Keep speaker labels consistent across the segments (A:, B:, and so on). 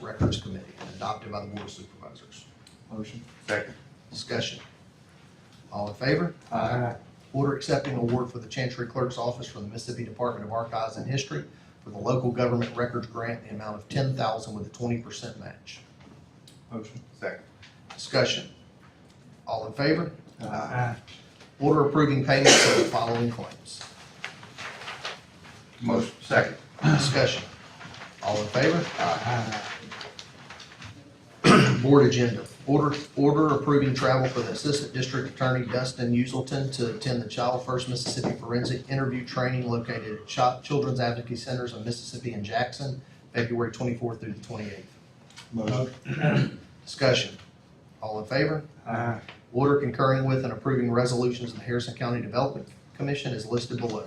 A: Records Committee and adopted by the Board of Supervisors.
B: Motion.
C: Second.
A: Discussion. All in favor?
B: Aye.
A: Order accepting award for the Chancery Clerk's Office from the Mississippi Department of Archives and History for the Local Government Records Grant in the amount of ten thousand with a twenty percent match.
B: Motion.
C: Second.
A: Discussion. All in favor?
B: Aye.
A: Order approving payments of the following claims.
C: Motion. Second.
A: Discussion. All in favor?
B: Aye.
A: Board agenda. Order, order approving travel for the Assistant District Attorney Dustin Uselton to attend the Child First Mississippi Forensic Interview Training located at Chi- Children's Advocacy Centers of Mississippi and Jackson, February twenty-fourth through the twenty-eighth.
B: Motion.
A: Discussion. All in favor?
B: Aye.
A: Order concurring with and approving resolutions of the Harrison County Development Commission is listed below.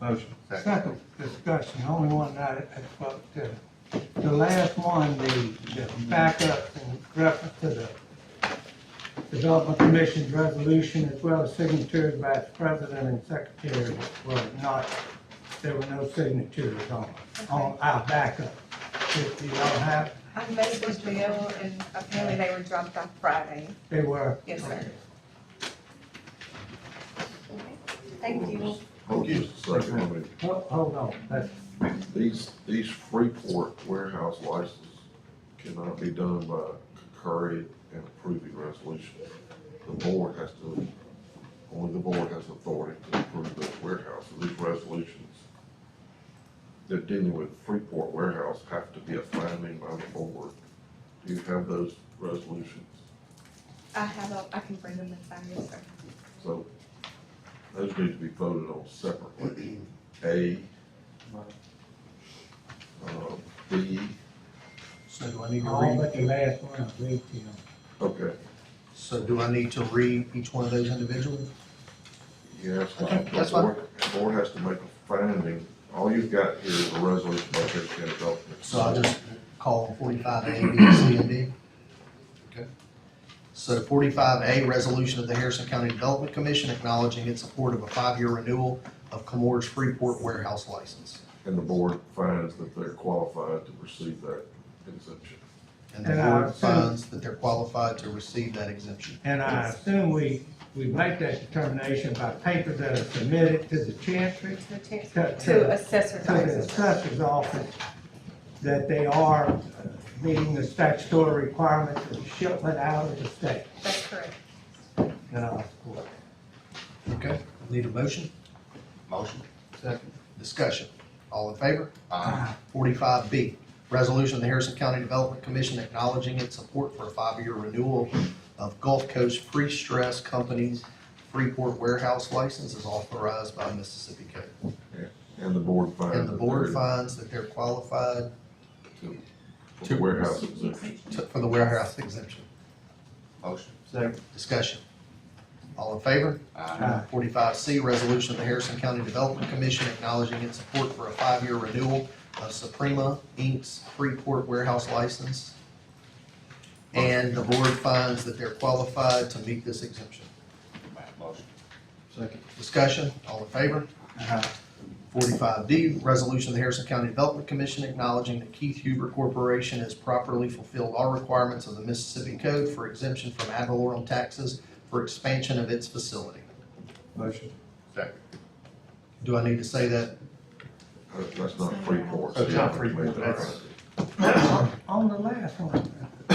B: Motion.
C: Second.
D: Second discussion, the only one that, well, the, the last one, the, the backup in reference to the Development Commission's resolution as well as signatures by its president and secretary were not, there were no signatures on, on our backup. If you don't have,
E: I made this deal and apparently they were dropped off Friday.
D: they were.
E: Yes, sir. Thank you.
F: Hold just a second, I mean,
D: Hold, hold on, that's,
F: these, these Freeport warehouse licenses cannot be done by concurring and approving resolution. The board has to, only the board has authority to approve those warehouse, So these resolutions. They're dealing with Freeport warehouse have to be a finding by the board. Do you have those resolutions?
E: I have, a- I can bring them in five years, sir.
F: So those need to be voted on separately. A, uh, B,
A: So do I need to
D: all
A: read,
D: but the last one, I believe, you know.
F: okay,
A: so do I need to read each one of those individually?
F: Yes,
A: Okay,
F: the
A: that's fine.
F: board, the board has to make a finding. All you've got here is a resolution by Harris County Development.
A: So I'll just call forty-five A, B, C, and D. Okay. So forty-five A, resolution of the Harrison County Development Commission acknowledging its support of a five-year renewal of Comores Freeport warehouse license.
F: And the board finds that they're qualified to receive that exemption.
A: And the
D: And I
A: board
D: assume-
A: finds that they're qualified to receive that exemption.
D: And I assume we, we make that determination by papers that are submitted to the chancery.
E: To the chair-
D: to-
E: To assessor's
D: to the
E: office.
D: assessor's office that they are uh, meeting the statutory requirements of shipment out of the state.
E: That's correct.
D: And I'll support.
A: Okay. Need a motion?
C: Motion.
A: Second. Discussion. All in favor? Forty-five B, resolution of the Harrison County Development Commission acknowledging its support for a five-year renewal of Gulf Coast Pre-Stress Company's Freeport warehouse license is authorized by Mississippi Code.
F: And the board finds.
A: And the
F: that
A: board
F: they're
A: finds that they're qualified
F: to- for the warehouse exemption.
A: to- for the warehouse exemption.
C: Motion.
B: Second.
A: Discussion. All in favor?
C: Aye.
A: Forty-five C, resolution of the Harrison County Development Commission acknowledging its support for a five-year renewal of Suprema Inc.'s Freeport warehouse license. And the board finds that they're qualified to meet this exemption.
C: Motion.
B: Second.
A: Discussion, all in favor?
B: Aye.
A: Forty-five D, resolution of the Harrison County Development Commission acknowledging that Keith Huber Corporation has properly fulfilled all requirements of the Mississippi Code for exemption from ad valorem taxes for expansion of its facility.
B: Motion.
C: Second.
A: Do I need to say that
F: Uh, That's not Freeport.
A: Oh,
F: so
B: That's not
F: you have to make
B: Freeport,
F: that
B: that's-
F: finding.
D: On the last one,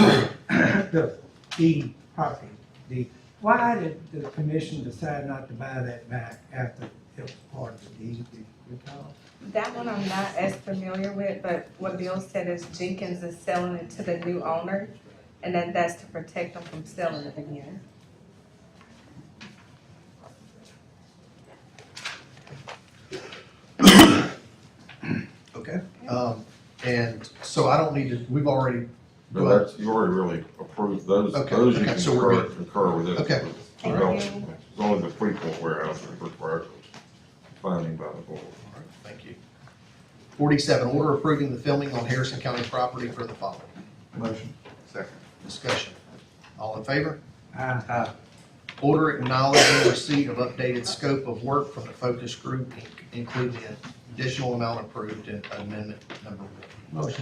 D: the D property, the, why did the commission decide not to buy that back after it was part of the deed? Do you recall?
E: That one I'm not as familiar with, but what Bill said is Jenkins is selling it to the new owner. And then that's to protect them from selling it again.
A: Okay, um, and so I don't need to, we've already,
F: No, that's, you already really approved those,
A: Okay,
F: those you
A: okay, so we're
F: concur, concur with it.
A: Okay.
E: Thank
F: Development.
E: you.
F: It's only the Freeport warehouse that requires finding by the board.
A: thank you. Forty-seven, order approving the filming on Harrison County property for the following.
B: Motion.
C: Second.
A: Discussion. All in favor?
D: Aye.
B: Aye.
A: Order acknowledging receipt of updated scope of work from the focus group, including the additional amount approved in amendment number one.
D: Motion